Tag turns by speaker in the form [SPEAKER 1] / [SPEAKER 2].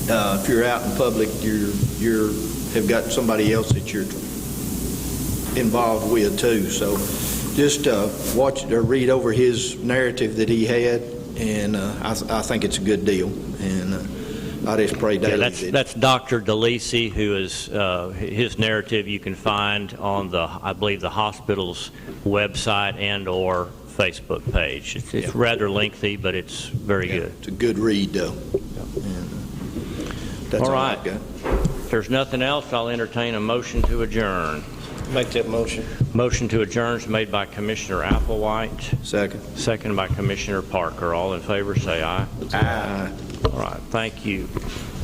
[SPEAKER 1] uh, if you're out in public, you're, you're, have got somebody else that you're involved with too. So just uh, watch or read over his narrative that he had, and uh, I, th- I think it's a good deal. And uh, I just pray
[SPEAKER 2] Yeah,
[SPEAKER 1] daily
[SPEAKER 2] that's,
[SPEAKER 1] that,
[SPEAKER 2] that's Dr. DeLisi, who is, uh, his narrative you can find on the, I believe, the hospital's website and/or Facebook page. It's- It's rather lengthy, but it's very
[SPEAKER 1] yeah,
[SPEAKER 2] good.
[SPEAKER 1] it's a good read though. And, uh, That's
[SPEAKER 2] All
[SPEAKER 1] all I've
[SPEAKER 2] right.
[SPEAKER 1] got.
[SPEAKER 2] If there's nothing else, I'll entertain a motion to adjourn.
[SPEAKER 3] Make that motion.
[SPEAKER 2] Motion to adjourn is made by Commissioner Applewhite,
[SPEAKER 1] Second.
[SPEAKER 2] second by Commissioner Parker. All in favor, say aye. All right, thank you.